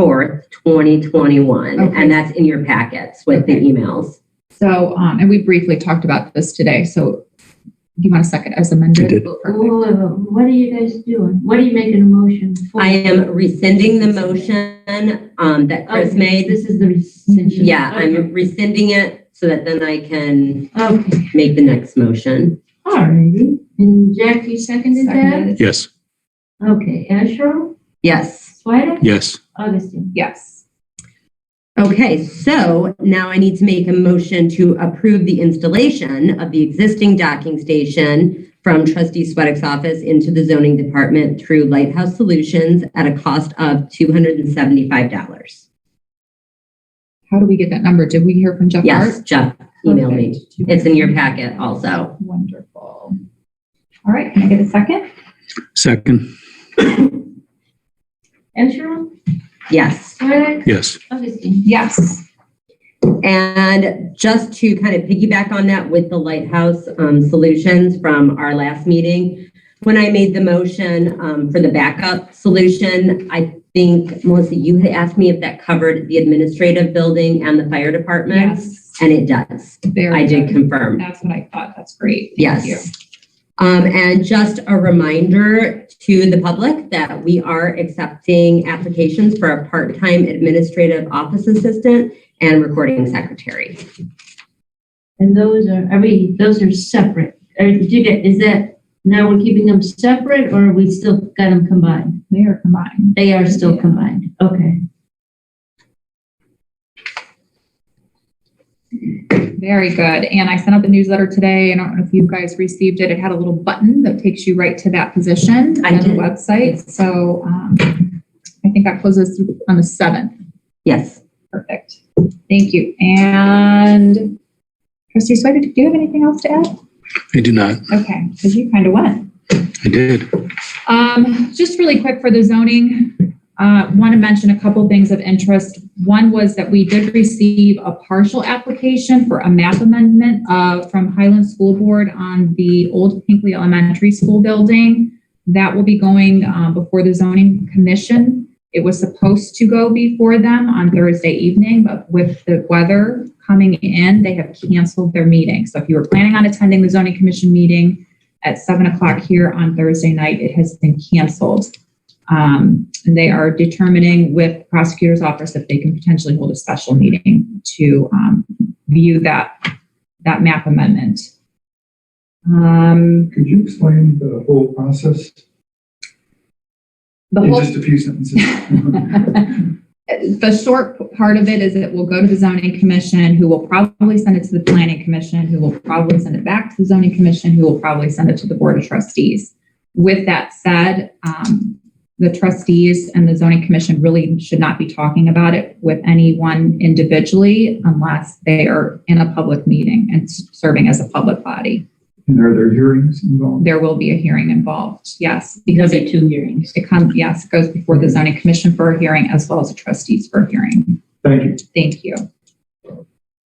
4th, 2021. Okay. And that's in your packets with the emails. So, um, and we briefly talked about this today. So do you want a second as amended? I did. Whoa, whoa, whoa, whoa. uh, What are you guys doing? What are you making a motion for? I am rescinding the motion um, that Chris Okay, made. This is the rescission. Yeah, Oh, Okay. I'm rescinding it so that then I can Okay, make the next motion. all righty. And Jack, you seconded that? Seconded. Yes, Okay, Asher, Yes. Swedek, yes, Augustine. Yes. Okay, so now I need to make a motion to approve the installation of the existing docking station from trustee Sweattick's office into the zoning department through Lighthouse Solutions at a cost of $275. How do we get that number? Did we hear from Jeff? Yes, Hart? Jeff emailed me. Perfect. It's in your packet also. Wonderful. All right, can I get a second? second, Asher, Yes. Swedek, yes, Augustine. Yes. And just to kind of piggyback on that with the Lighthouse um, Solutions from our last meeting, when I made the motion um, for the backup solution, I think, Melissa, you had asked me if that covered the administrative building and the fire department, Yes. and it does. There I we did go. confirm. That's what I thought. That's great. Thank you. Yes. Um, and just a reminder to the public that we are accepting applications for a part-time administrative office assistant and recording secretary. And those are, are we, those are separate? Or did you get, is that, now we're keeping them separate or we still got them combined? They are combined. They are still combined. Okay. Very good. And I sent out the newsletter today. I don't know if you guys received it. It had a little button that takes you right to that position I on the did. website. So um, I think that closes on the 7th. Yes. Perfect. Thank you. And trustee Swider, do you have anything else to add? I do not, Okay, because you kind of went. I did. Um, just really quick for the zoning, uh, want to mention a couple things of interest. One was that we did receive a partial application for a map amendment, uh, from Highland School Board on the old Pinkley Elementary School building. That will be going, um, before the zoning commission. It was supposed to go before them on Thursday evening, but with the weather coming in, they have canceled their meeting. So if you were planning on attending the zoning commission meeting, at seven o'clock here on Thursday night. It has been canceled. Um, and they are determining with prosecutor's office if they can potentially hold a special meeting to, um, view that, that map amendment. Um, Could you explain the whole process the in whole just a few sentences? The short part of it is it will go to the zoning commission, who will probably send it to the planning commission, who will probably send it back to the zoning commission, who will probably send it to the board of trustees. With that said, um, the trustees and the zoning commission really should not be talking about it with anyone individually unless they are in a public meeting and s- serving as a public body. And are there hearings involved? There will be a hearing involved, yes, because it, two hearings. it comes, yes, it goes before the zoning commission for a hearing as well as the trustees for a hearing. Thank you. Thank you.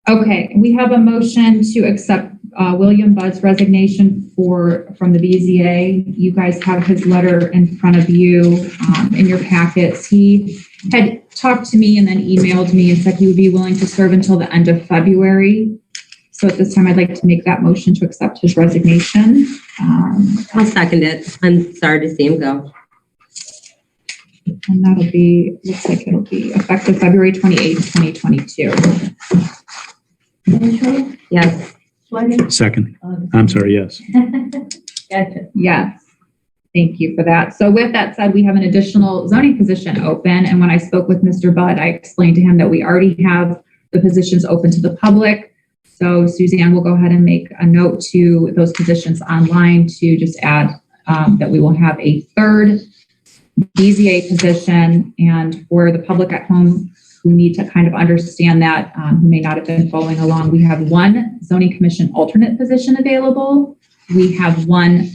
Okay, we have a motion to accept uh, William Budd's resignation for, from the BZA. You guys have his letter in front of you um, in your packets. He had talked to me and then emailed me and said he would be willing to serve until the end of February. So at this time, I'd like to make that motion to accept his resignation. Um, I'll second it. I'm sorry to see him go. And that'll be, looks like it'll be effective February 28th, 2022. Asher, Yes. Swedek, Second, Augustine. I'm sorry, yes. Gotcha. Yes. Thank you for that. So with that said, we have an additional zoning position open. And when I spoke with Mr. Budd, I explained to him that we already have the positions open to the public. So Suzanne will go ahead and make a note to those positions online to just add um, that we will have a third BZA position. And for the public at home who need to kind of understand that, um, who may not have been following along, we have one zoning commission alternate position available. We have one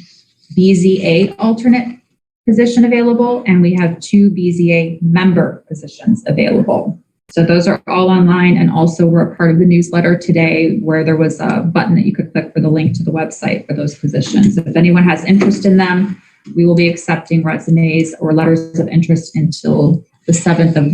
BZA alternate position available, and we have two BZA member positions available. So those are all online and also were a part of the newsletter today where there was a button that you could click for the link to the website for those positions. If anyone has interest in them, we will be accepting resumes or letters of interest until the 7th of